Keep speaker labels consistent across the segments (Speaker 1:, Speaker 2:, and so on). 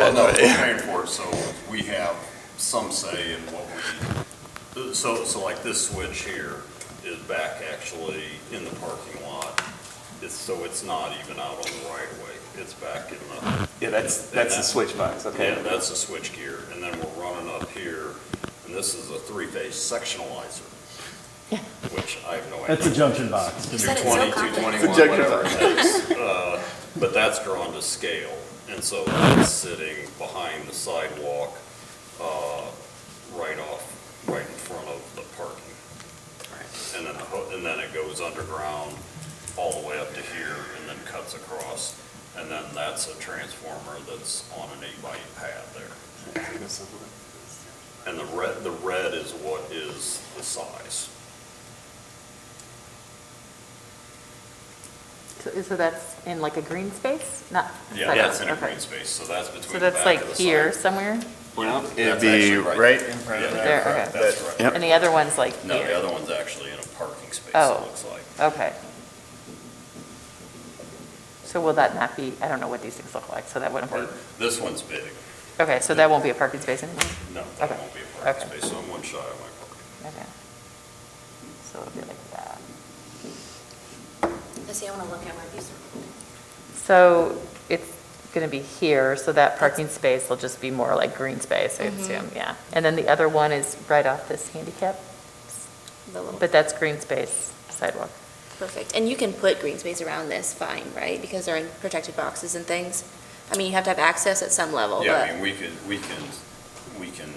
Speaker 1: Well, no, we're paying for it, so we have some say in what we, so, so like this switch here is back actually in the parking lot. It's, so it's not even out on the right of way, it's back in the,
Speaker 2: Yeah, that's, that's the switch box, okay.
Speaker 1: yeah, that's the switch gear. And then we're running up here, and this is a three-phase sectionalizer, which I have no idea.
Speaker 3: That's a junction box.
Speaker 4: You said it so
Speaker 1: 220,
Speaker 4: confident.
Speaker 1: 221, whatever it is. Uh, But that's drawn to scale, and so that's sitting behind the sidewalk, uh, right off, right in front of the parking. And then, the ho- and then it goes underground all the way up to here and then cuts across. And then that's a transformer that's on an eight by eight pad there. And the red, the red is what is the size.
Speaker 4: So- So that's in like a green space? Not?
Speaker 1: Yeah,
Speaker 4: side
Speaker 1: that's in
Speaker 4: yard,
Speaker 1: a
Speaker 4: okay.
Speaker 1: green space, so that's between
Speaker 4: So
Speaker 1: the back
Speaker 4: that's
Speaker 1: of
Speaker 4: like
Speaker 1: the
Speaker 4: here
Speaker 1: side.
Speaker 4: somewhere?
Speaker 2: Well,
Speaker 1: That's
Speaker 5: It'd be
Speaker 1: actually right.
Speaker 5: right in front of
Speaker 1: Yeah,
Speaker 5: that.
Speaker 4: There, okay.
Speaker 1: That's right.
Speaker 5: Yep.
Speaker 4: And the other one's like
Speaker 1: No, the
Speaker 4: here?
Speaker 1: other one's actually in a parking space, it
Speaker 4: Oh.
Speaker 1: looks like.
Speaker 4: Okay. So will that not be, I don't know what these things look like, so that wouldn't be,
Speaker 1: Or- This one's big,
Speaker 4: okay, so that won't be a parking space anymore?
Speaker 1: no, that
Speaker 4: Okay.
Speaker 1: won't be a parking
Speaker 4: Okay.
Speaker 1: space, so I'm one shy of my parking.
Speaker 4: Okay. So it'll be like that.
Speaker 6: I see, I want to look at where these are.
Speaker 4: So it's going to be here, so that parking space will just be more like green space, I
Speaker 6: Mm-hmm.
Speaker 4: assume, yeah. And then the other one is right off this handicap,
Speaker 6: The little,
Speaker 4: but that's green space sidewalk.
Speaker 6: perfect. And you can put green space around this, fine, right? Because they're in protected boxes and things. I mean, you have to have access at some level,
Speaker 1: Yeah, I
Speaker 6: but
Speaker 1: mean, we can, we can, we can.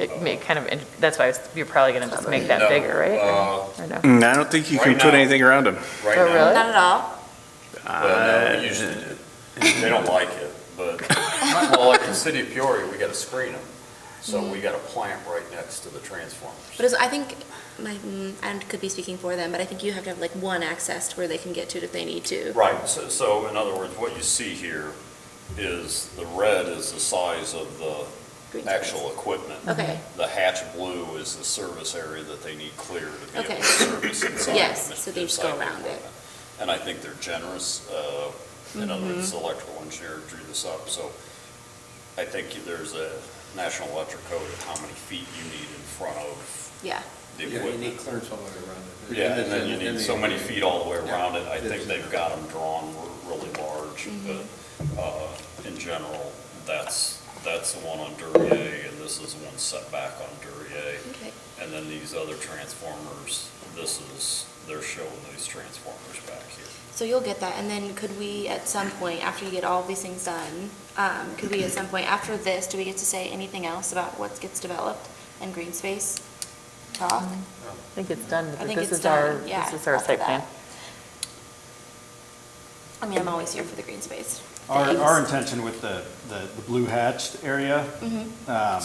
Speaker 1: uh,
Speaker 4: It may kind of, that's why I was- you're probably going to just make that
Speaker 1: No,
Speaker 4: bigger, right?
Speaker 1: uh,
Speaker 4: Or no?
Speaker 5: Mm, I don't think you can
Speaker 1: Right
Speaker 5: put
Speaker 1: now-
Speaker 5: anything around them.
Speaker 1: Right
Speaker 4: Oh,
Speaker 1: now,
Speaker 4: really?
Speaker 6: not at all.
Speaker 1: well, no, we usually do. They don't like it, but, well, like the city of Peoria, we gotta screen them. So we got a plant right next to the transformers.
Speaker 6: But it's, I think, my, mm, I could be speaking for them, but I think you have to have like one access to where they can get to it if they need to.
Speaker 1: Right, so, so in other words, what you see here is the red is the size of the
Speaker 6: Green space.
Speaker 1: actual equipment.
Speaker 6: Okay,
Speaker 1: The hatch blue is the service area that they need clear to be able
Speaker 6: Okay.
Speaker 1: to service inside.
Speaker 6: Yes,
Speaker 1: the-
Speaker 6: so they just
Speaker 1: inside
Speaker 6: go
Speaker 1: the
Speaker 6: around it.
Speaker 1: equipment. And I think they're generous, uh, in other words,
Speaker 6: Mm-hmm.
Speaker 1: the electrical engineer drew this up, so I think there's a national electric code of how many feet you need in front of
Speaker 6: yeah.
Speaker 1: the
Speaker 7: Yeah, you need
Speaker 1: equipment.
Speaker 7: clearance all the way around it.
Speaker 1: Yeah, and then you need so many feet all the way around it, I
Speaker 7: Yeah.
Speaker 1: think they've got them drawn r- really large, but, uh, in general, that's, that's the one on Duryea, and this is the one set back on Duryea.
Speaker 6: Okay.
Speaker 1: And then these other transformers, this is, they're showing these transformers back here.
Speaker 6: So you'll get that, and then could we, at some point, after you get all these things done, um, could we, at some point, after this, do we get to say anything else about what gets developed and green space talk?
Speaker 4: I think it's done,
Speaker 6: I
Speaker 4: but
Speaker 6: think
Speaker 4: this
Speaker 6: it's
Speaker 4: is our,
Speaker 6: done, yeah.
Speaker 4: this is our
Speaker 6: after
Speaker 4: site
Speaker 6: that.
Speaker 4: plan.
Speaker 6: I mean, I'm always here for the green space.
Speaker 3: Our,
Speaker 6: Thanks.
Speaker 3: our intention with the, the, the blue hatched area,
Speaker 6: Mm-hmm.
Speaker 3: um,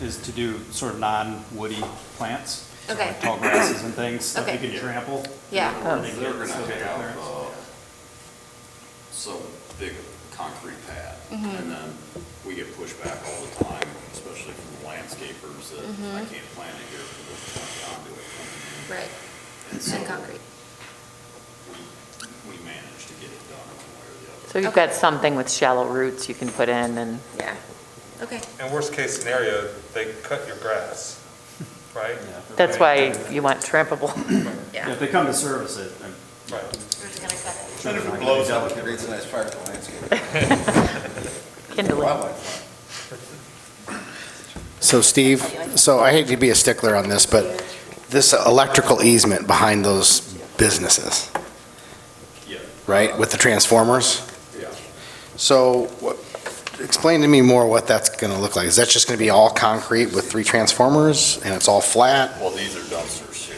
Speaker 3: is to do sort of non-woody plants. so
Speaker 6: Okay.
Speaker 3: like Tall grasses and things that you
Speaker 6: Okay.
Speaker 3: can trample.
Speaker 6: Yeah,
Speaker 4: Oh.
Speaker 3: They
Speaker 1: They're
Speaker 3: get
Speaker 1: gonna
Speaker 3: so they
Speaker 1: have,
Speaker 3: clearance.
Speaker 1: uh, some big concrete pad. And then we get pushed back all the time, especially from landscapers that I can't plant it here for this conduit.
Speaker 6: right,
Speaker 1: And so
Speaker 6: and concrete.
Speaker 1: we- We managed to get it done one way or the other.
Speaker 4: So you've got something with shallow roots you can put in and,
Speaker 6: Yeah, okay.
Speaker 5: Uh,
Speaker 8: And worst case scenario, they cut your grass, right?
Speaker 3: Yeah.
Speaker 4: that's why you want trampable.
Speaker 3: Yeah, If they come to service it, I'm
Speaker 8: Right.
Speaker 6: We're just gonna cut it.
Speaker 3: sure.
Speaker 7: If it
Speaker 3: they're not
Speaker 7: blows
Speaker 3: gonna
Speaker 7: up,
Speaker 3: be
Speaker 7: it creates a nice fire for the landscape.
Speaker 4: Kindling.
Speaker 7: Wildlife.
Speaker 9: So Steve, so I hate to be a stickler on this, but this electrical easement behind those businesses,
Speaker 1: Yeah,
Speaker 9: right, with the transformers?
Speaker 1: yeah.
Speaker 9: So what- explain to me more what that's going to look like. Is that just going to be all concrete with three transformers and it's all flat?
Speaker 1: Well, these are dumpsters here.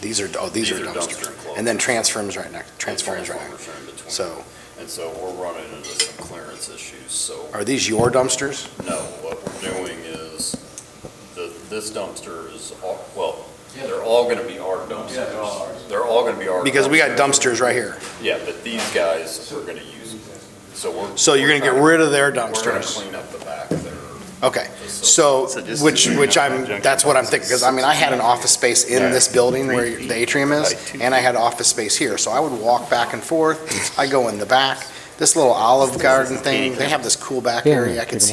Speaker 9: These are, oh, these are dumpsters.
Speaker 1: dumpster
Speaker 9: And then transformers right next, transformers right next.
Speaker 1: Transformers are in between.
Speaker 9: So
Speaker 1: And so we're running into some clearance issues, so,
Speaker 9: are these your dumpsters?
Speaker 1: no, what we're doing is, the, this dumpster is, all- well, they're all gonna be our dumpsters.
Speaker 7: Yeah, they're all ours.
Speaker 1: They're all gonna be our.
Speaker 9: Because we got
Speaker 1: dumpsters.
Speaker 9: dumpsters right here.
Speaker 1: Yeah, but these guys are gonna use, so we're.
Speaker 9: So you're going to get rid of their
Speaker 1: We're gonna
Speaker 9: dumpsters?
Speaker 1: clean up the back of their
Speaker 9: Okay.
Speaker 1: facility.
Speaker 9: So,
Speaker 5: So just-
Speaker 9: which, which I'm, that's what I'm thinking, because I mean, I had an office space in this building where the atrium is, and I had office space here, so I would walk back and forth, I go in the back, this little olive garden thing, they have this cool back area, I could see